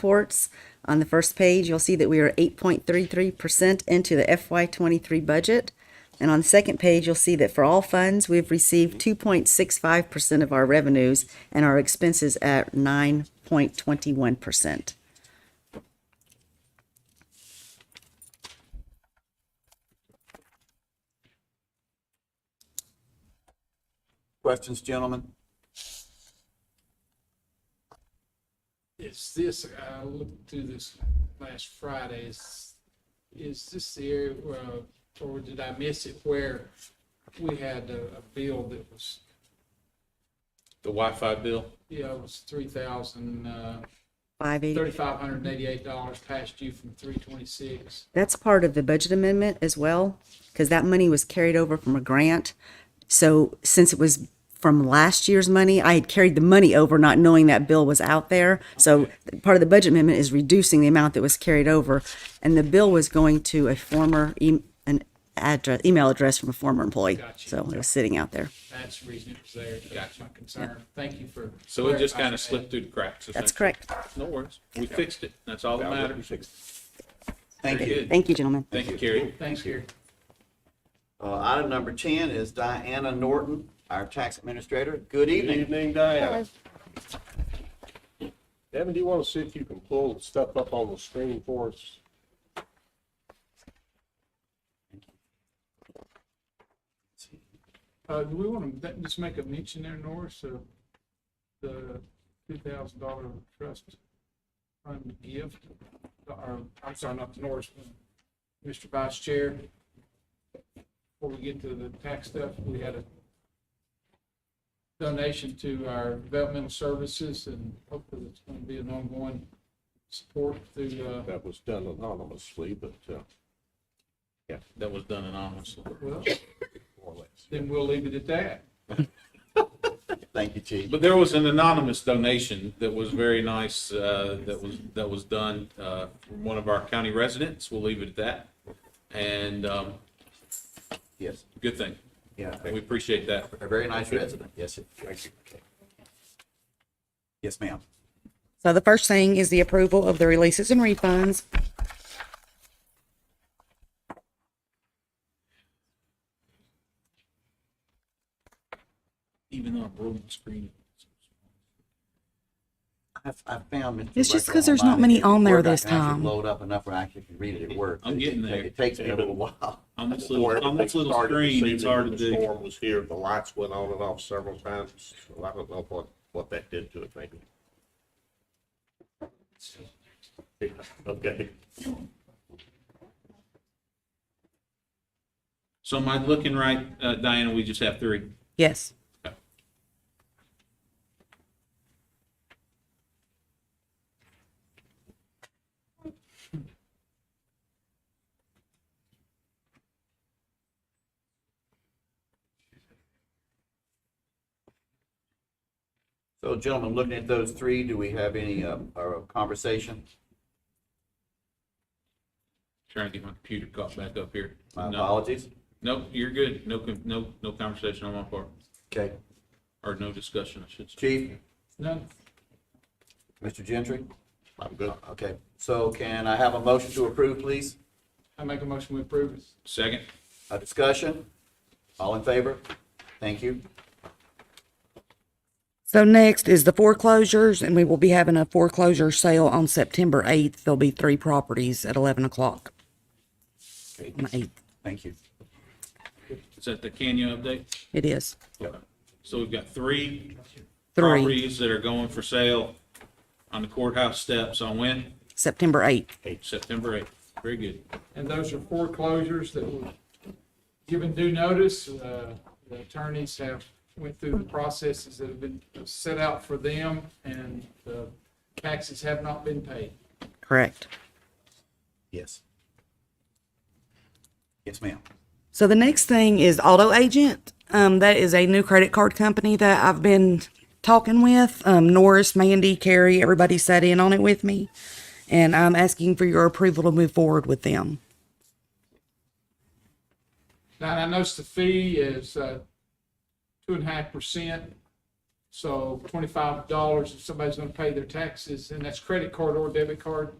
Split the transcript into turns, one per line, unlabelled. reports. On the first page, you'll see that we are 8.33% into the FY23 budget. And on the second page, you'll see that for all funds, we've received 2.65% of our revenues and our expenses at 9.21%.
Questions, gentlemen?
Is this, I looked through this last Friday, is, is this the area where, or did I miss it, where we had a, a bill that was,
The Wi-Fi bill?
yeah, it was three thousand, uh,
580.
thirty-five hundred and eighty-eight dollars past due from three twenty-six?
That's part of the budget amendment as well, because that money was carried over from a grant. So since it was from last year's money, I had carried the money over not knowing that bill was out there. So part of the budget amendment is reducing the amount that was carried over. And the bill was going to a former, e- an address, email address from a former employee.
Gotcha.
So it was sitting out there.
That's the reason it was there, that's my concern, thank you for.
So it just kind of
clarifying
slipped through the cracks.
That's
essentially.
correct.
No worries. We fixed it. That's all that matters.
Thank
Very
you.
good.
Thank you, gentlemen.
Thank you, Carrie.
that. Thanks, Gary.
Uh, item number ten is Diana Norton, our tax administrator. Good
Good
evening.
evening, Diana. Devin, do you want to see if you can pull the stuff up on the screen for us?
Uh, do we want to just make a mention there, Norris, of the two thousand dollar trust fund gift? Or, I'm sorry, not Norris, but Mr. Vice Chair. Before we get to the tax stuff, we had a donation to our developmental services and hopefully it's going to be an ongoing support through, uh,
That was done anonymously, but, uh,
That was done anonymously.
well,
more or less.
then we'll leave it at that.
Thank you, Chief.
But there was an anonymous donation that was very nice, uh, that was, that was done, uh, from one of our county residents. We'll leave it at that. And, um,
Yes,
good thing.
yeah,
We appreciate that.
a very nice resident. Yes, it- okay. Yes, ma'am.
So the first thing is the approval of the releases and refunds.
Even on a broken screen.
I've, I found Mr.
It's just
Rucker
'cause there's not
online.
many
If
on there
Word, I
this
can actually
time.
Load up enough where I actually can read it at work.
I'm getting there.
It takes me a little while.
On this
Before
little, on this
everything
little
started this
screen, it's
evening,
hard to
when
do.
The storm was here, the lights went on and off several times, so I don't know what, what that did to it, maybe. Okay.
So am I looking right, uh, Diana? We just have three.
Yes.
So gentlemen, looking at those three, do we have any, um, or conversation?
Trying to get my computer caught back up here.
My
No.
apologies.
Nope, you're good. No, con- no, no conversation on my part,
Okay.
or no discussion, I should say.
Chief,
None,
Mr. Gentry?
I'm good.
Okay, so can I have a motion to approve, please?
I make a motion we approve it.
Second,
A discussion? All in favor? Thank you.
So next is the foreclosures, and we will be having a foreclosure sale on September 8th. There'll be three properties at 11 o'clock on the 8th.
Thank you.
is that the Canyon update?
It is.
So we've got three
Three,
properties that are going for sale on the courthouse steps on when?
September 8th.
September 8th. Very good.
And those are foreclosures that were given due notice. Uh, The attorneys have went through the processes that have been set out for them and the taxes have not been paid.
Correct.
Yes. Yes, ma'am.
So the next thing is Auto Agent. Um, that is a new credit card company that I've been talking with. Um, Norris, Mandy, Carrie, everybody sat in on it with me. And I'm asking for your approval to move forward with them.
Now, I noticed the fee is uh, two and a half percent. So twenty-five dollars if somebody's gonna pay their taxes, and that's credit card or debit card,